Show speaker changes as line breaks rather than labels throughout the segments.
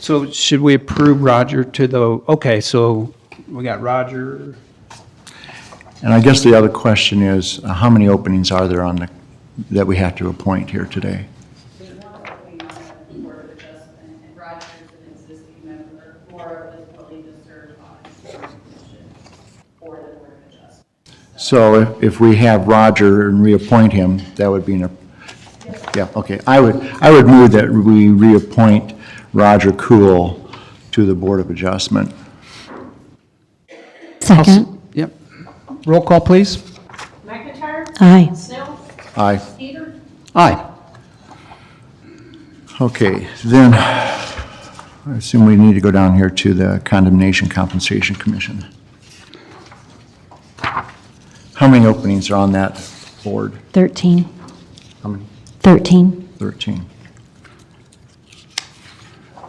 So should we approve Roger to the, okay, so we got Roger.
And I guess the other question is, uh, how many openings are there on the, that we have to appoint here today?
There's one opening on the Board of Adjustment, and Roger is an existing member, Laura was willing to serve on the commission for the Board of Adjustment.
So if, if we have Roger and reappoint him, that would be an, ap- yeah, okay. I would, I would move that we reappoint Roger Cool to the Board of Adjustment.
Second.
Yep. Roll call, please.
McIntyre?
Aye.
Snell?
Aye.
Peter?
Aye.
Okay, then, I assume we need to go down here to the Condemnation Compensation Commission. How many openings are on that board?
13.
How many?
13.
13.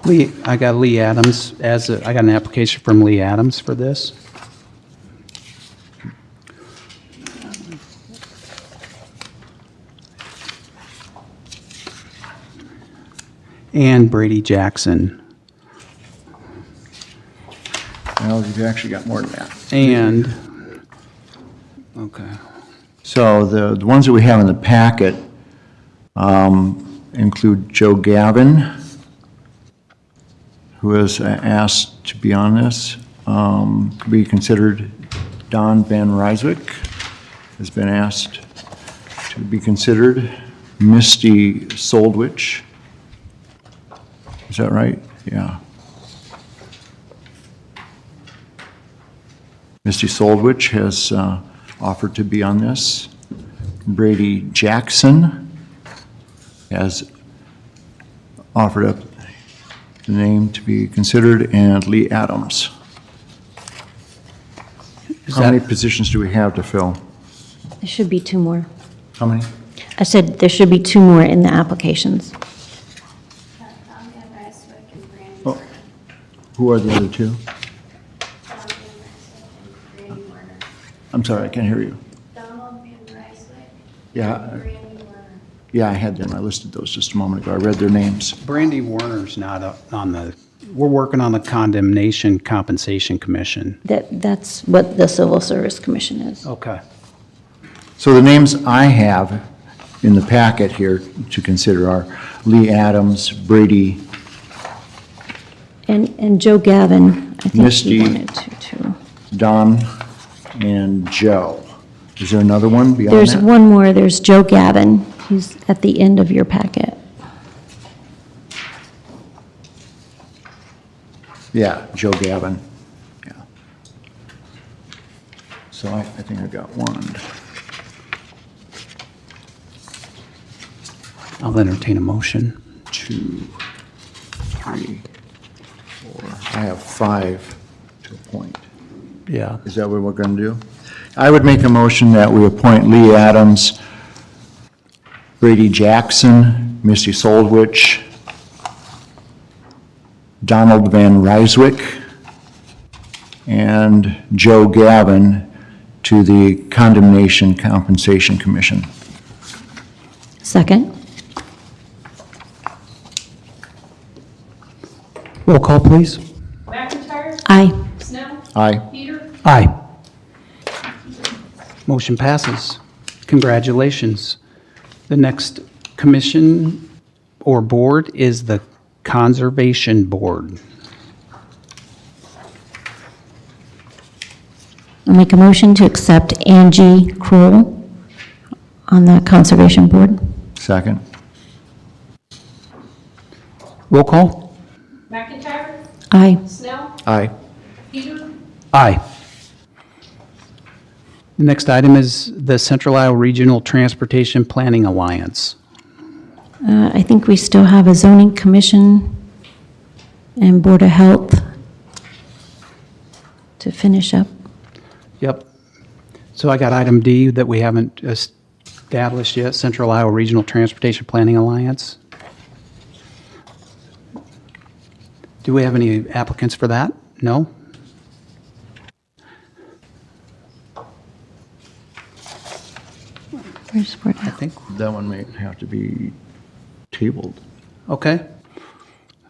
Lee, I got Lee Adams as, a- I got an application from Lee Adams for this. And Brady Jackson.
Well, you've actually got more than that.
And, okay,
So the the ones that we have in the packet um, include Joe Gavin, who was asked to be on this, um, to be considered. Don Van Ryswick has been asked to be considered. Misty Soldwich. Is that right? Yeah. Misty Soldwich has uh, offered to be on this. Brady Jackson has offered up the name to be considered, and Lee Adams. How many positions do we have to fill?
There should be two more.
How many?
I said there should be two more in the applications.
Tom Van Ryswick and Brandy
Oh.
Warner.
Who are the other two?
Tom Van Ryswick and Brandy Warner.
I'm sorry, I can't hear you.
Donald Van Ryswick.
Yeah,
and
I-
Brandy Warner.
yeah, I had them. I listed those just a moment ago. I read their names.
Brandy Warner's not up on the, we're working on the Condemnation Compensation Commission.
That, that's what the Civil Service Commission is.
Okay.
So the names I have in the packet here to consider are Lee Adams, Brady,
And, and Joe Gavin, I think
Misty.
he wanted to, too.
Don, and Joe. Is there another one beyond
There's
that?
one more, there's Joe Gavin. He's at the end of your packet.
Yeah, Joe Gavin. Yeah. So I, I think I got one.
I'll entertain a motion.
two, three, four. I have five to appoint.
Yeah.
Is that what we're going to do? I would make a motion that we appoint Lee Adams, Brady Jackson, Misty Soldwich, Donald Van Ryswick, and Joe Gavin to the Condemnation Compensation Commission.
Second.
Roll call, please.
McIntyre?
Aye.
Snell?
Aye.
Peter?
Aye. Motion passes. Congratulations. The next commission or board is the Conservation Board.
I'll make a motion to accept Angie Kroll on the Conservation Board.
Second?
Roll call?
McIntyre?
Aye.
Snell?
Aye.
Peter?
Aye. The next item is the Central Iowa Regional Transportation Planning Alliance.
Uh, I think we still have a zoning commission and Board of Health to finish up.
Yep. So I got item D that we haven't established yet, Central Iowa Regional Transportation Planning Alliance. Do we have any applicants for that? No?
Where's Board of
I
Health?
think,
That one may have to be tabled.
okay.